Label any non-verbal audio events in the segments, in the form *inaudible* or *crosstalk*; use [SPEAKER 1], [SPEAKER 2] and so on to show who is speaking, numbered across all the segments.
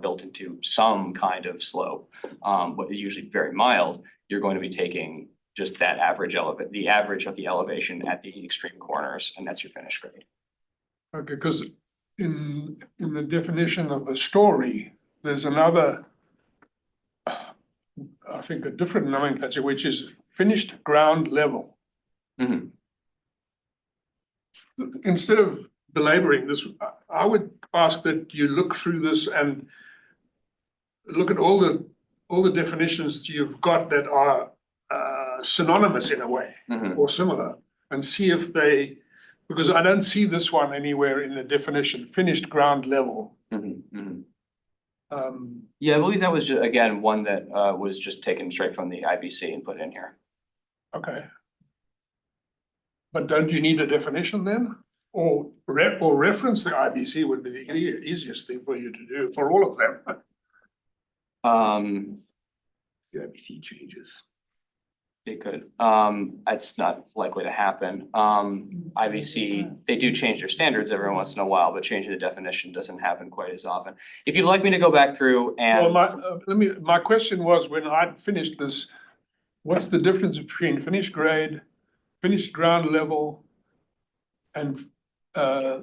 [SPEAKER 1] built into some kind of slope, um, but usually very mild, you're going to be taking just that average elevate, the average of the elevation at the extreme corners, and that's your finished grade.
[SPEAKER 2] Okay, because in, in the definition of a story, there's another, I think a different nomenclature, which is finished ground level.
[SPEAKER 1] Mhm.
[SPEAKER 2] Instead of belaboring this, I- I would ask that you look through this and look at all the, all the definitions you've got that are uh, synonymous in a way
[SPEAKER 1] Mhm.
[SPEAKER 2] or similar and see if they, because I don't see this one anywhere in the definition, finished ground level.
[SPEAKER 1] Mhm. Mhm.
[SPEAKER 2] Um,
[SPEAKER 1] Yeah, I believe that was ju- again, one that uh was just taken straight from the IBC and put in here.
[SPEAKER 2] okay. But don't you need a definition then? Or re- or reference the IBC would be the ea- easiest thing for you to do for all of them. *laughs*
[SPEAKER 1] Um,
[SPEAKER 2] The IBC changes.
[SPEAKER 1] It could, um, that's not likely to happen, um, IBC, they do change their standards every once in a while, but changing the definition doesn't happen quite as often. If you'd like me to go back through
[SPEAKER 2] Well,
[SPEAKER 1] and,
[SPEAKER 2] my, uh, let me, my question was when I finished this, what's the difference between finished grade, finished ground level? And, uh,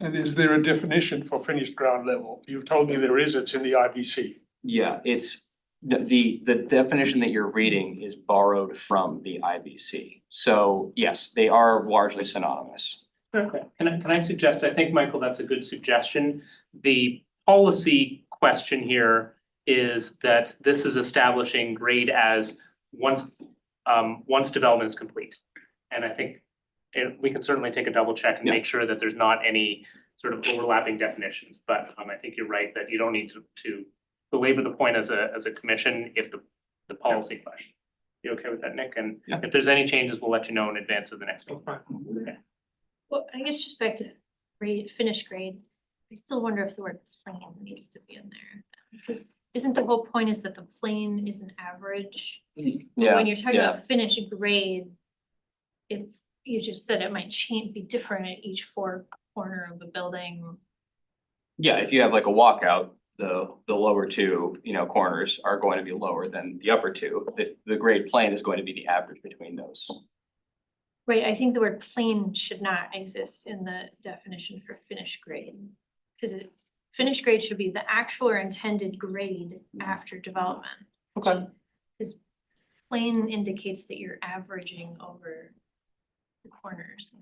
[SPEAKER 2] and is there a definition for finished ground level? You've told me there is, it's in the IBC.
[SPEAKER 1] yeah, it's, the, the, the definition that you're reading is borrowed from the IBC. So, yes, they are largely synonymous.
[SPEAKER 3] Okay, can I, can I suggest, I think, Michael, that's a good suggestion. The policy question here is that this is establishing grade as once, um, once development is complete. And I think eh, we can certainly take a double check and
[SPEAKER 1] Yeah.
[SPEAKER 3] make sure that there's not any sort of overlapping definitions. But, um, I think you're right that you don't need to, to belabor the point as a, as a commission if the, the policy question. You okay with that, Nick? And
[SPEAKER 1] Yeah.
[SPEAKER 3] if there's any changes, we'll let you know in advance of the next meeting.
[SPEAKER 4] Well, I guess just back to grade, finished grade, I still wonder if the word plane needs to be in there. Because isn't the whole point is that the plane is an average? But
[SPEAKER 1] Yeah,
[SPEAKER 4] When you're talking about finished grade, if you just said it might change, be different at each four corner of the building.
[SPEAKER 1] yeah, if you have like a walkout, the, the lower two, you know, corners are going to be lower than the upper two. The, the grade plane is going to be the average between those.
[SPEAKER 4] Right, I think the word plane should not exist in the definition for finished grade. Because it, finished grade should be the actual or intended grade after development.
[SPEAKER 1] Okay.
[SPEAKER 4] Cause plane indicates that you're averaging over the corners.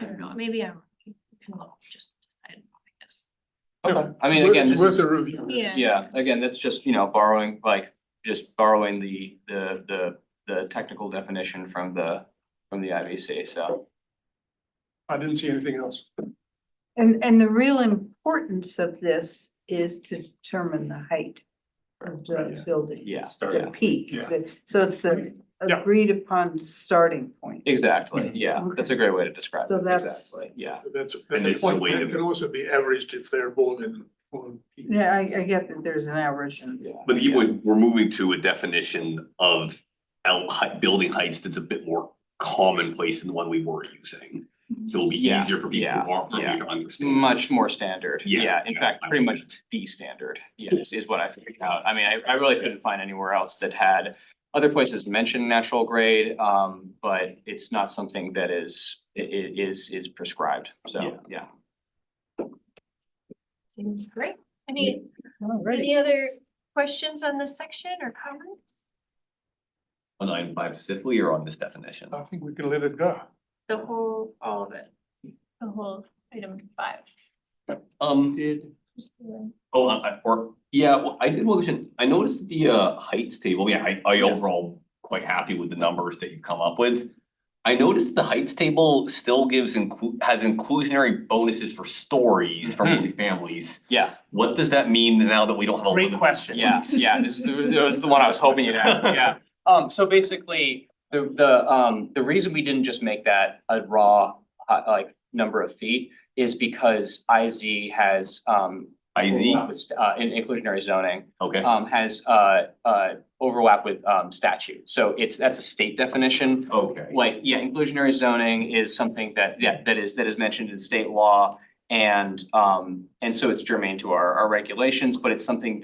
[SPEAKER 4] I don't know, maybe I'm, you can look, just decide, I guess.
[SPEAKER 1] Okay, I mean, again, this
[SPEAKER 2] It's
[SPEAKER 1] is.
[SPEAKER 2] worth a review.
[SPEAKER 1] Yeah, again, that's just, you know, borrowing, like, just borrowing the, the, the, the technical definition from the, from the IBC, so.
[SPEAKER 2] I didn't see anything else.
[SPEAKER 5] And, and the real importance of this is to determine the height of the building.
[SPEAKER 1] Yeah,
[SPEAKER 5] The
[SPEAKER 1] yeah,
[SPEAKER 5] peak,
[SPEAKER 2] Yeah.
[SPEAKER 5] the- so it's the
[SPEAKER 2] Yeah.
[SPEAKER 5] agreed upon starting point.
[SPEAKER 1] exactly, yeah,
[SPEAKER 5] Okay.
[SPEAKER 1] that's a great way to describe
[SPEAKER 5] So
[SPEAKER 1] it,
[SPEAKER 5] that's-
[SPEAKER 1] exactly, yeah.
[SPEAKER 2] That's,
[SPEAKER 6] And
[SPEAKER 2] that's
[SPEAKER 6] it's
[SPEAKER 2] a
[SPEAKER 6] the
[SPEAKER 2] point,
[SPEAKER 6] weight
[SPEAKER 2] but it
[SPEAKER 6] of
[SPEAKER 2] can
[SPEAKER 6] it.
[SPEAKER 2] also be averaged if they're more than. one peak.
[SPEAKER 5] Yeah, I, I get that there's an average and
[SPEAKER 1] Yeah.
[SPEAKER 6] But you was, we're moving to a definition of L height, building heights that's a bit more commonplace than the one we were using. So it'll be
[SPEAKER 1] Yeah,
[SPEAKER 6] easier for people
[SPEAKER 1] yeah,
[SPEAKER 6] who aren't
[SPEAKER 1] yeah.
[SPEAKER 6] familiar to understand.
[SPEAKER 1] Much more standard,
[SPEAKER 6] Yeah,
[SPEAKER 1] yeah, in
[SPEAKER 6] yeah,
[SPEAKER 1] fact,
[SPEAKER 6] I
[SPEAKER 1] pretty
[SPEAKER 6] would-
[SPEAKER 1] much it's the standard, yes, is what I figured out, I mean, I, I really couldn't find anywhere else that had. Other places mention natural grade, um, but it's not something that is, i- i- is, is prescribed,
[SPEAKER 6] Yeah.
[SPEAKER 1] so, yeah.
[SPEAKER 4] Seems great. Any, any other questions on this section or comments?
[SPEAKER 6] On item five specifically or on this definition?
[SPEAKER 2] I think we can let it go.
[SPEAKER 4] The whole, all of it, the whole item five.
[SPEAKER 6] Um.
[SPEAKER 2] Did.
[SPEAKER 4] Just the-
[SPEAKER 6] Oh, I, I- or, yeah, well, I did one question, I noticed the uh heights table, yeah, I I overall quite happy with the numbers that you come up with. I noticed the heights table still gives inclu- has inclusionary bonuses for stories for
[SPEAKER 1] Mhm.
[SPEAKER 6] multifamilies.
[SPEAKER 1] Yeah.
[SPEAKER 6] What does that mean now that we don't have a
[SPEAKER 3] Great
[SPEAKER 6] limit?
[SPEAKER 3] question.
[SPEAKER 6] *laughs*
[SPEAKER 1] Yeah, yeah, this is, this is the one I was hoping you'd have, yeah. Um, so basically, the, the, um, the reason we didn't just make that a raw, uh, like, number of feet is because IZ has, um,
[SPEAKER 6] I Z,
[SPEAKER 1] overlap with, Uh, in inclusionary zoning,
[SPEAKER 6] okay,
[SPEAKER 1] um, has, uh, uh, overlap with, um, statute. So it's, that's a state definition,
[SPEAKER 6] okay,
[SPEAKER 1] like, yeah, inclusionary zoning is something that, yeah, that is, that is mentioned in state law. And um and so it's germane to our our regulations, but it's something